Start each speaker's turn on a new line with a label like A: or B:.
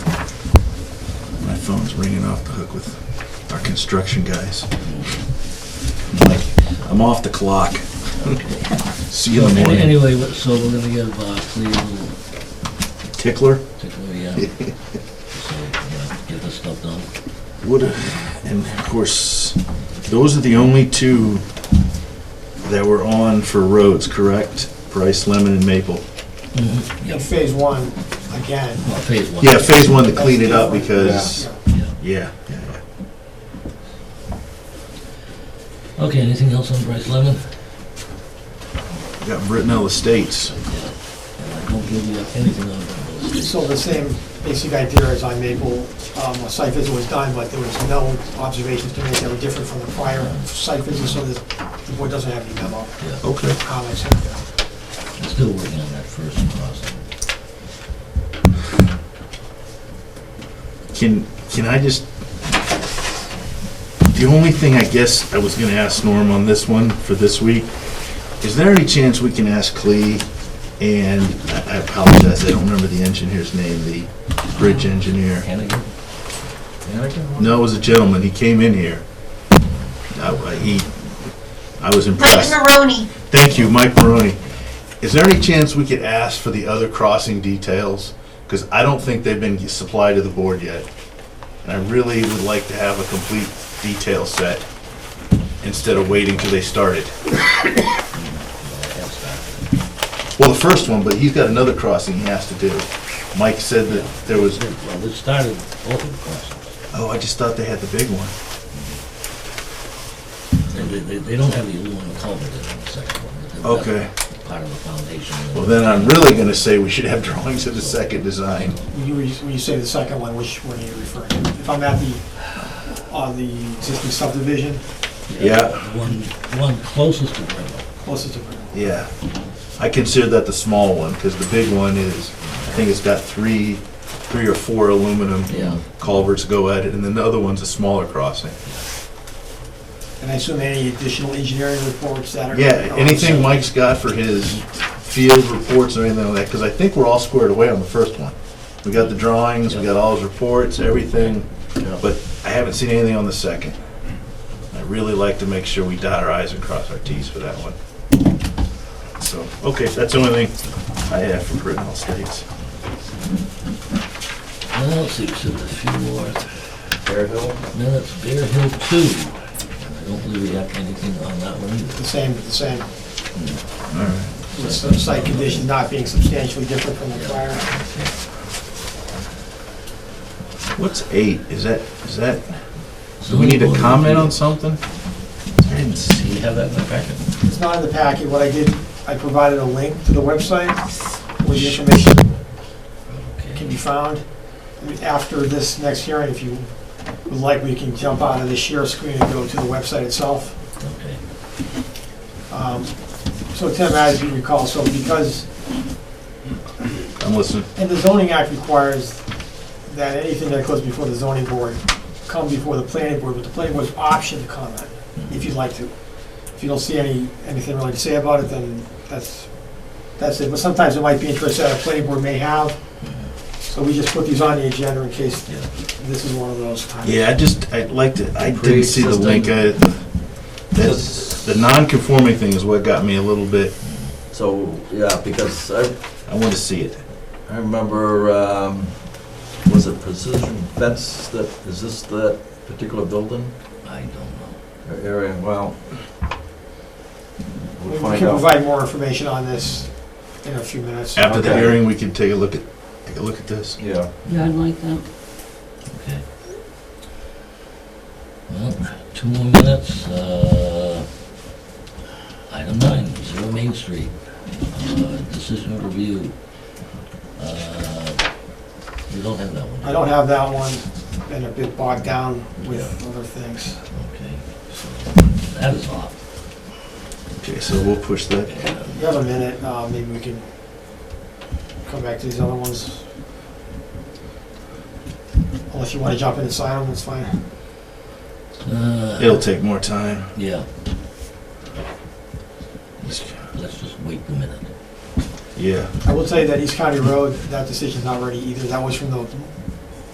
A: phone's ringing off the hook with our construction guys. Like, I'm off the clock. See you in the
B: Any-
A: morning.
B: Anyway, what- so we're gonna give uh, Clea a little
A: Tickler?
B: particular, yeah. So, uh, get this stuff done.
A: Would, and of course, those are the only two that were on for roads, correct? Bryce Lemon and Maple.
C: In phase one, again.
B: Well, phase one.
A: Yeah, phase one to clean it up because,
B: Yeah.
A: yeah, yeah, yeah.
B: Okay, anything else on Bryce Lemon?
A: We Got Brittenell Estates.
B: And I don't give you anything on that list.
C: So the same basic idea as on Maple, um, a site visit was done, but there was no observations to make that were different from the prior site visit, so this- the board doesn't have any memo
B: Yeah,
A: Okay.
C: comments.
B: I'm still working on that first crossing.
A: Can, can I just, the only thing I guess I was gonna ask Norm on this one for this week, is there any chance we can ask Clee and, I- I apologize, I don't remember the engineer's name, the bridge engineer.
B: Hannigan? Uh,
A: No, it was a gentleman, he came in here. I, I- he, I was
D: Mike
A: impressed.
D: Maroney.
A: Thank you, Mike Maroney. Is there any chance we could ask for the other crossing details? Because I don't think they've been supplied to the board yet. And I really would like to have a complete detail set instead of waiting till they started. Well, the first one, but he's got another crossing he has to do. Mike said that there was,
B: Well, this started both of the crossings.
A: oh, I just thought they had the big one.
B: They- They, they, they don't have the aluminum culvert in the second one. but they've got
A: Okay.
B: Part of the foundation. and-
A: Well, then I'm really gonna say we should have drawings of the second design.
C: When you, when you say the second one, which one are you referring to? If I'm at the, on the existing subdivision,
A: Yeah.
B: One, one closest to Brittle.
C: closest to,
A: Yeah, I consider that the small one, because the big one is, I think it's got three, three or four aluminum
B: Yeah.
A: culverts go at it, and then the other one's a smaller crossing.
C: and I assume any additional engineering reports that are.
A: Yeah, anything Mike's got for his field reports or anything like that, because I think we're all squared away on the first one. We got the drawings, we got all his reports, everything, but I haven't seen anything on the second. I really like to make sure we dot our i's and cross our t's for that one. So, okay, that's the only thing I have for Brittenell Estates.
B: Well, let's see, so there's a few more.
E: Bear Hill?
B: Minutes, Bear Hill Two. And I don't believe we have anything on that one either.
C: The same, the same,
A: All right.
C: with some site conditions not being substantially different from the prior.
A: What's eight? Is that, is that, do we
B: Zoning
A: need to
B: board
A: comment on
B: review.
A: something? I didn't
B: uh, Do
A: see.
B: you have that in the packet?
C: It's not in the packet, what I did, I provided a link to the website where the information can
B: Okay.
C: be found. After this next hearing, if you would like, we can jump out of the share screen and go to the website itself.
B: Okay.
C: Um, So Tim, as you recall, so because,
A: I'm listening.
C: and the zoning act requires that anything that goes before the zoning board come before the planning board, but the planning board's option to comment, if you'd like to. If you don't see any, anything really to say about it, then that's, that's it. But sometimes it might be interest that a planning board may have, so we just put these on the agenda in case
B: Yeah.
C: this is one of those times.
A: Yeah, I just, I'd like to, I didn't see the
E: Pre-existing.
A: link. I- That's, the non-conforming thing is what got me a little bit,
E: So, yeah, because I,
A: I want to see it.
E: I remember, um, was it precision fence that, is this that particular building
B: I don't know.
E: or area? Well,
C: We
E: we'll
C: can
E: find out.
C: provide more information on this in a few minutes.
A: After the
E: Okay.
A: hearing, we can take a look at, take a look at this.
E: Yeah,
F: Yeah, I'd like that.
B: Okay. Well, two more minutes. Uh, Item nine, Zero Main Street. Uh, Decision of review. Uh, We don't have that one.
C: I don't have that one, been a bit bogged down with other things.
B: Okay. so That is off.
A: Okay, so we'll push that.
B: Yeah.
C: You have a minute, uh, maybe we can come back to these other ones. Unless you want to jump in and sign them, that's fine.
B: Uh,
A: It'll take more time.
B: Yeah. Let's just wait a minute.
A: Yeah,
C: I will tell you that East County Road, that decision's not ready either. That was from the